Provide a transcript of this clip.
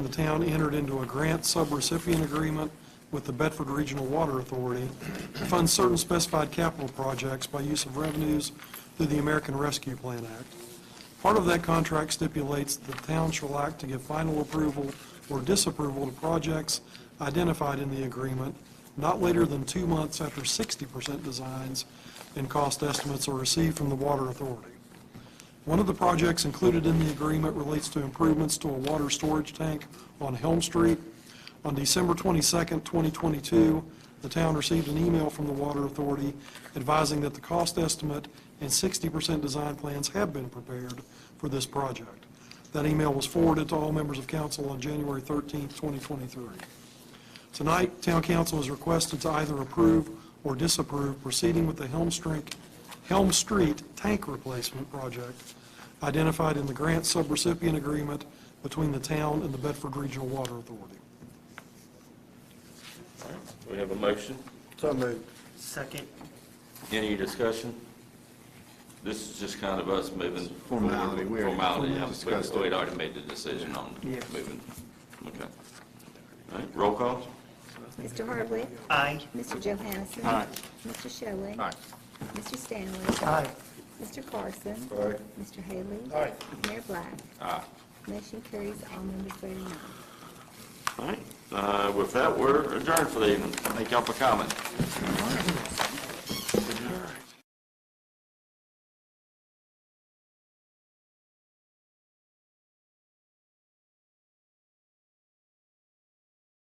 The town entered into a grant subrecipient agreement with the Bedford Regional Water Authority to fund certain specified capital projects by use of revenues through the American Rescue Plan Act. Part of that contract stipulates that the town shall act to give final approval or disapproval to projects identified in the agreement not later than two months after 60% designs and cost estimates are received from the Water Authority. One of the projects included in the agreement relates to improvements to a water storage tank on Helm Street. On December 22nd, 2022, the town received an email from the Water Authority advising that the cost estimate and 60% design plans have been prepared for this project. That email was forwarded to all members of council on January 13th, 2023. Tonight, town council is requested to either approve or disapprove proceeding with the Helm Street, Helm Street Tank Replacement Project identified in the grant subrecipient agreement between the town and the Bedford Regional Water Authority. We have a motion. So moved. Second. Any discussion? This is just kind of us moving. forward. Formality, we already- Formality, yeah. we discussed it. We'd already made the decision on Yes. moving. Okay. All right, roll call? Mr. Hardwick. Aye. Mr. Johansson. Aye. Mr. Shelley. Aye. Mr. Stanley. Aye. Mr. Carson. Aye. Mr. Haley. Aye. Mayor Black. Aye. Motion carries, all members voting aye. All right, Uh, with that, we're adjourned for the evening. Thank y'all for coming.